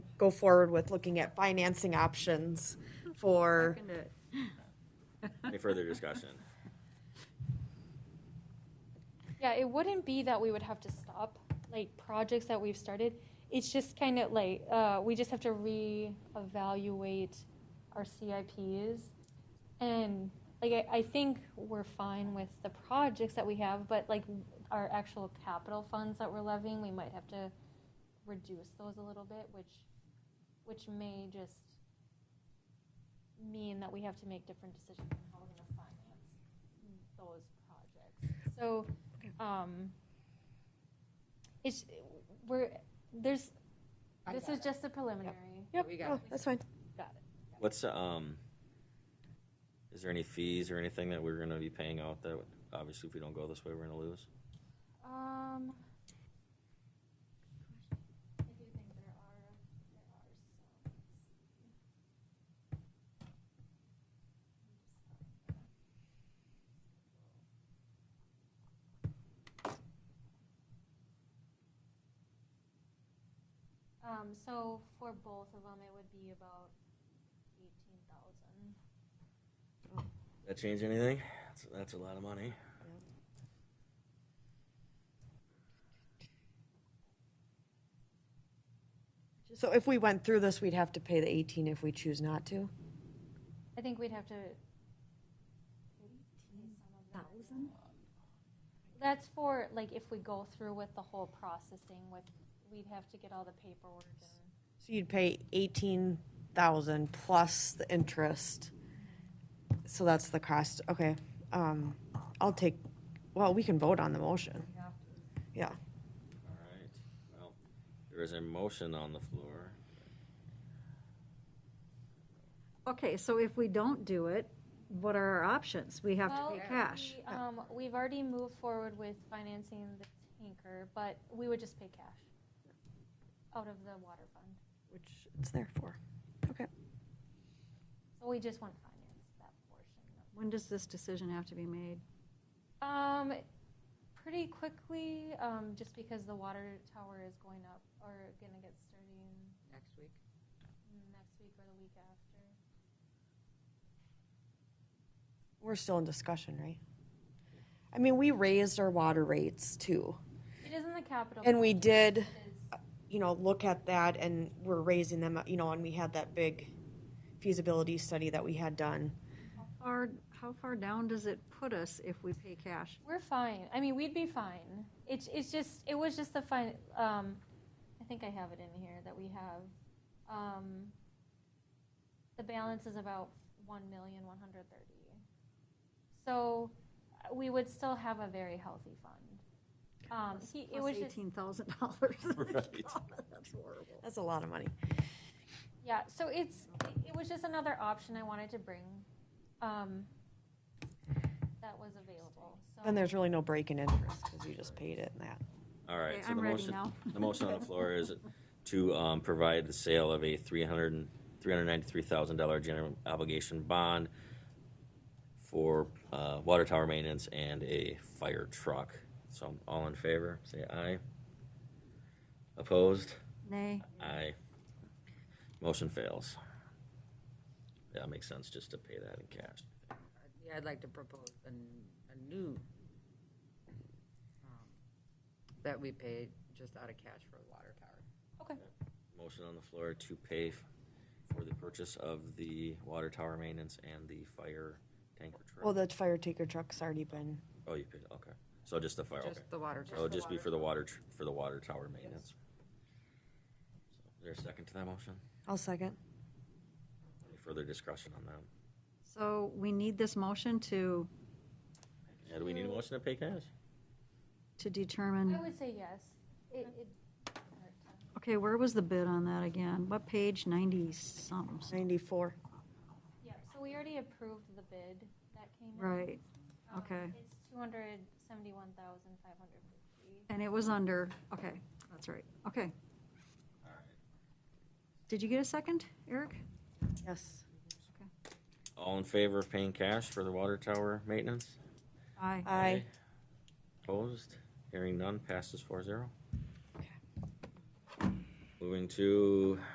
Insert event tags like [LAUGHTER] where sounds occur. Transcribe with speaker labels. Speaker 1: go forward with looking at financing options for,
Speaker 2: Any further discussion?
Speaker 3: Yeah, it wouldn't be that we would have to stop like projects that we've started. It's just kind of like uh, we just have to reevaluate our CIPs, and like I, I think we're fine with the projects that we have, but like our actual capital funds that we're levying, we might have to reduce those a little bit, which which may just mean that we have to make different decisions on how we're going to finance those projects. So, um, it's, we're, there's,
Speaker 4: I
Speaker 3: this
Speaker 4: got
Speaker 3: is
Speaker 4: it.
Speaker 3: just a preliminary.
Speaker 1: yep,
Speaker 4: We got
Speaker 1: oh, that's fine.
Speaker 3: Got it.
Speaker 2: What's, um, is there any fees or anything that we're gonna be paying out that, obviously if we don't go this way, we're gonna lose?
Speaker 3: Um. I do think there are, there are some. Um, so for both of them, it would be about eighteen thousand.
Speaker 2: That change anything? That's, that's a lot of money.
Speaker 1: So if we went through this, we'd have to pay the 18 if we choose not to?
Speaker 3: I think we'd have to. That's for, like, if we go through with the whole processing with, we'd have to get all the paperwork and.
Speaker 1: So you'd pay 18,000 plus the interest. So that's the cost, okay. Um, I'll take, well, we can vote on the motion. Yeah,
Speaker 2: All right, well, there is a motion on the floor.
Speaker 5: Okay, so if we don't do it, what are our options? We have to
Speaker 3: Well,
Speaker 5: pay cash.
Speaker 3: we, Um, we've already moved forward with financing the tanker, but we would just pay cash out of the water fund.
Speaker 1: which it's there for, okay.
Speaker 3: So we just want to finance that portion of
Speaker 5: When does this decision have to be made?
Speaker 3: Um, pretty quickly, um, just because the water tower is going up or gonna get starting
Speaker 4: Next week.
Speaker 3: next week or the week after.
Speaker 1: We're still in discussion, right? I mean, we raised our water rates too.
Speaker 3: It isn't the capital.
Speaker 1: And we
Speaker 3: budget,
Speaker 1: did,
Speaker 3: it is-
Speaker 1: you know, look at that and we're raising them, you know, and we had that big feasibility study that we had done.
Speaker 5: How far, how far down does it put us if we pay cash?
Speaker 3: We're fine. I mean, we'd be fine. It's, it's just, it was just the fine, um, I think I have it in here that we have. Um, the balance is about one million, one hundred thirty. So uh, we would still have a very healthy fund. Um, he, it was
Speaker 5: Plus
Speaker 3: just.
Speaker 5: eighteen thousand dollars. [LAUGHS]
Speaker 2: Right.
Speaker 5: That's horrible.
Speaker 1: That's a lot of money.
Speaker 3: Yeah, so it's, it- it was just another option I wanted to bring, um, that was available, so.
Speaker 1: Then there's really no break in interest because you just paid it and that.
Speaker 2: All right,
Speaker 5: Okay,
Speaker 2: so the
Speaker 5: I'm ready
Speaker 2: motion,
Speaker 5: now.
Speaker 2: the motion on the floor is to um, provide the sale of a three hundred three hundred ninety-three thousand dollar general obligation bond for uh, water tower maintenance and a fire truck. So all in favor, say aye. Opposed?
Speaker 5: Nay,
Speaker 2: Aye. Motion fails. That makes sense, just to pay that in cash.
Speaker 4: Yeah, I'd like to propose a, n- a new, um, that we pay just out of cash for the water tower.
Speaker 3: Okay,
Speaker 2: Motion on the floor to pay f- for the purchase of the water tower maintenance and the fire tanker truck.
Speaker 1: Well, the fire taker truck's already been,
Speaker 2: Oh, you paid, okay. So just the fire, okay.
Speaker 4: Just the water
Speaker 2: So
Speaker 4: tower.
Speaker 2: it'd just be for the water, tr- for the water tower maintenance. So, Is there a second to that motion?
Speaker 1: I'll second.
Speaker 2: Any further discussion on that?
Speaker 5: so we need this motion to,
Speaker 2: Yeah, do we need a motion to pay cash?
Speaker 5: to
Speaker 3: I
Speaker 5: determine,
Speaker 3: would say yes. It, it,
Speaker 5: okay, where was the bid on that again? What page, ninety-something,
Speaker 1: Ninety-four.
Speaker 3: yeah, so we already approved the bid that came in.
Speaker 5: right,
Speaker 3: Um,
Speaker 5: okay.
Speaker 3: It's two hundred seventy-one thousand five hundred fifty.
Speaker 5: and it was under, okay, that's right, okay. Did you get a second, Eric?
Speaker 1: Yes.
Speaker 2: All in favor of paying cash for the water tower maintenance?
Speaker 5: Aye.
Speaker 1: Aye.
Speaker 2: Opposed? Hearing none, passes four zero. Moving to